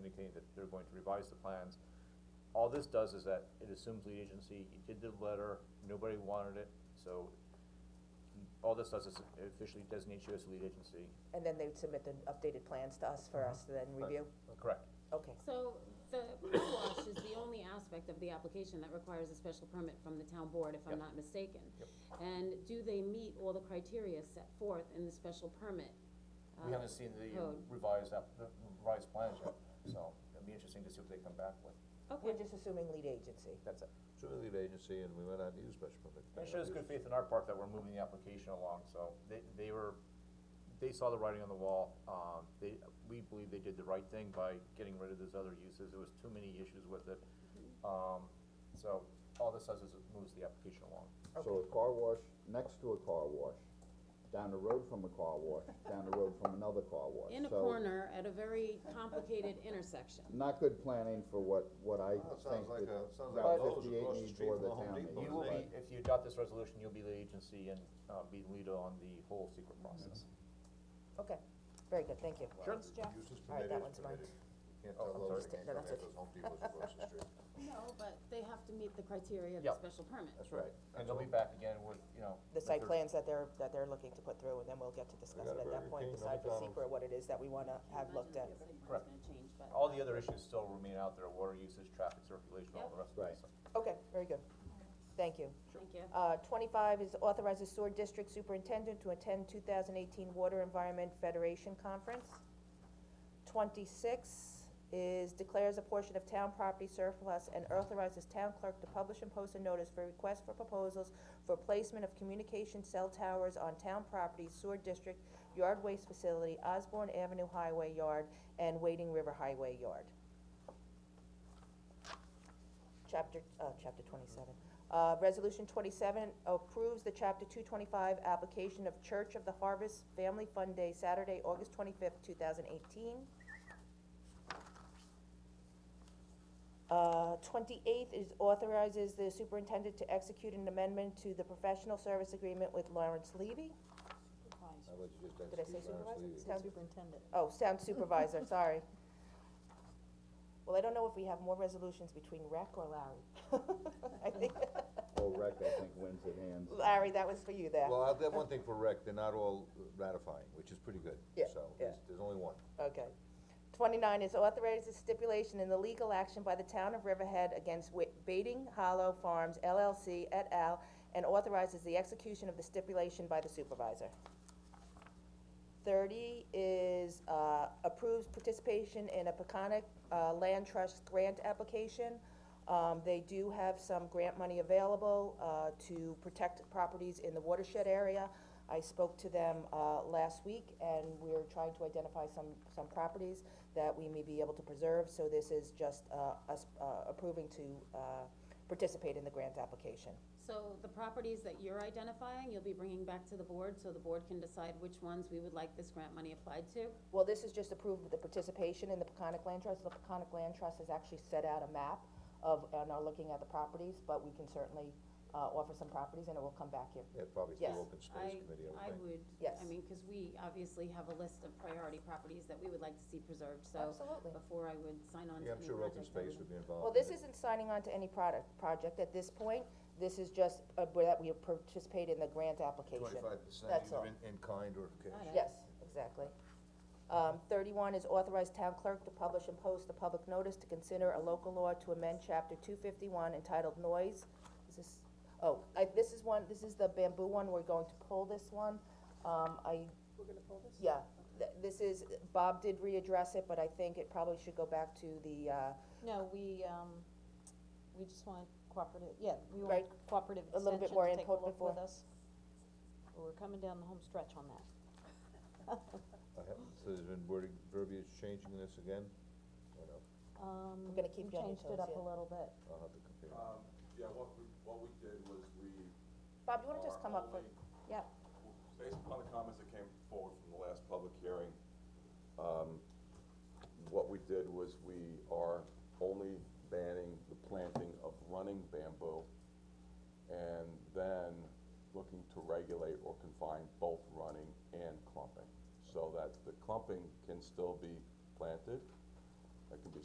eighteenth, that they're going to revise the plans. All this does is that it assumes lead agency, you did the letter, nobody wanted it, so all this does is it officially designates you as the lead agency. And then they would submit the updated plans to us for us to then review? Correct. Okay, So the car wash is the only aspect of the application that requires a special permit from the town board, if I'm Yep. not mistaken. And do they meet all the criteria set forth in the special permit? We uh, haven't seen the code? revised app, the revised plans yet, so it'll be interesting to see what they come back with, we're Uh, Okay, just assuming lead agency. that's it. So we leave agency and we went out to use special permit. That shows good faith in our part that we're moving the application along, so they, they were, they saw the writing on the wall. Um, they, we believe they did the right thing by getting rid of those other uses, there was too many issues with it. Um, so all this does is it moves the application along. So a car wash, next to a car wash, down the road from a car wash, down the road from another car wash. in a So, corner at a very complicated intersection. Not good planning for what, what I Well, it think sounds like a- sounds that like Route Lowe's fifty-eight across the needs street or from the the Home town Depot. needs. You will be, if you adopt this resolution, you'll be the agency and, uh, be the leader on the whole secret process. Okay, very good, thank you. Sure. Thanks, Jeff. Use is All right, permitted, that one's mine. permitted. Can't Oh, tell I'm Lowe's, sorry. can't No, tell that's okay. Home Depot's across the street. No, but they have to meet the criteria of Yeah. the special permit. That's right. And they'll be back again with, you know. The with site their- plans that they're, that they're looking to put through, and then we'll get to discuss got it a at Burger that point, King, no decide for McDonald's. secret what it is that we wanna have looked at. Correct. Oh, It's gonna change, but. All the other issues still remain out there, water usage, traffic circulation, all the rest of it, Right. so. Okay, very good. Thank you. Thank you. Uh, twenty-five is authorizes sewer district superintendent to attend two thousand eighteen Water Environment Federation Conference. Twenty-six is declares a portion of town property surplus and authorizes town clerk to publish and post a notice for request for proposals for placement of communication cell towers on town property, sewer district, yard waste facility, Osborne Avenue Highway Yard, and Wading River Highway Yard. Chapter, uh, chapter twenty-seven. Uh, resolution twenty-seven approves the chapter two twenty-five application of Church of the Harvest Family Fun Day, Saturday, August twenty-fifth, two thousand eighteen. Uh, twenty-eighth is authorizes the superintendent to execute an amendment to the professional service agreement with Lawrence Levy. I'll let you just Did I execute say Lawrence supervisor? Levy. Sound- Superintendent. Oh, sound supervisor, sorry. Well, I don't know if we have more resolutions between rec or Larry. I think, Whole rec, I think, wins at hands. Larry, that was for you there. Well, I'll have one thing for rec, they're not all ratifying, which is pretty good. Yeah, So, yeah. there's, there's only one. Okay. Twenty-nine is authorizes stipulation in the legal action by the town of Riverhead against Wa- Baiting Hollow Farms LLC et al. and authorizes the execution of the stipulation by the supervisor. Thirty is, uh, approves participation in a Peconic, uh, Land Trust grant application. Um, they do have some grant money available, uh, to protect properties in the watershed area. I spoke to them, uh, last week, and we're trying to identify some, some properties that we may be able to preserve, so this is just, uh, us, uh, approving to, uh, participate in the grant application. So the properties that you're identifying, you'll be bringing back to the board, so the board can decide which ones we would like this grant money applied to? Well, this is just approved with the participation in the Peconic Land Trust. The Peconic Land Trust has actually set out a map of, and are looking at the properties, but we can certainly, uh, offer some properties and it will come back here. Yeah, probably Yes. through open space committee, I I, I would think. would, Yes. I mean, cause we obviously have a list of priority properties that we would like to see preserved, so. Absolutely. Before I would sign on to Yeah, I'm any sure open project, I space would- would be involved. Well, in this it. isn't signing on to any product, project at this point. This is just, uh, where that we have participated in the grant application. Twenty-five percent That's all. either in, in kind or cash. Got it. Yes, exactly. Um, thirty-one is authorized town clerk to publish and post a public notice to consider a local law to amend chapter two fifty-one entitled noise. Is this, oh, I, this is one, this is the bamboo one, we're going to pull this one. Um, I. We're gonna pull this? Yeah, th- this is, Bob did readdress it, but I think it probably should go back to the, uh, No, we, um, we just want cooperative, yeah, we want Right. cooperative A little extension bit to take a more look with us. input before- We're coming down the home stretch on that. I have- So there's been wording, verbiage changing this again? Or no? Um, We're gonna keep you we on your changed toes, it up yeah. a little bit. I'll have to compare. Um, yeah, what we, what we did was we. Bob, you wanna just are come up for, only- yeah, Based upon the comments that came forward from the last public hearing, um, what we did was we are only banning the planting of running bamboo and then looking to regulate or confine both running and clumping. So that the clumping can still be planted